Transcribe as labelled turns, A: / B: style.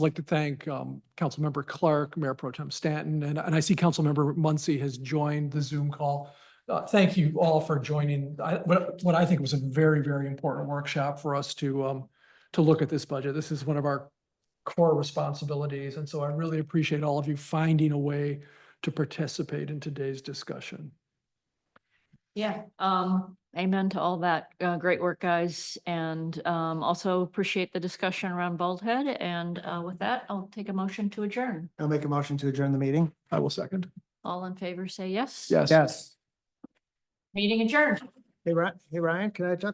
A: I'd like to thank um, Councilmember Clark, Mayor Pro Tem Stanton, and and I see Councilmember Muncy has joined the Zoom call. Uh, Thank you all for joining. I- What what I think was a very, very important workshop for us to um, to look at this budget. This is one of our core responsibilities, and so I really appreciate all of you finding a way to participate in today's discussion.
B: Yeah, um, amen to all that. Uh, great work, guys. And, um, also appreciate the discussion around Bald Head. And, uh, with that, I'll take a motion to adjourn.
C: I'll make a motion to adjourn the meeting.
A: I will second.
B: All in favor, say yes.
A: Yes.
C: Yes.
B: Meeting adjourned.
C: Hey, Ryan, hey, Ryan, can I talk?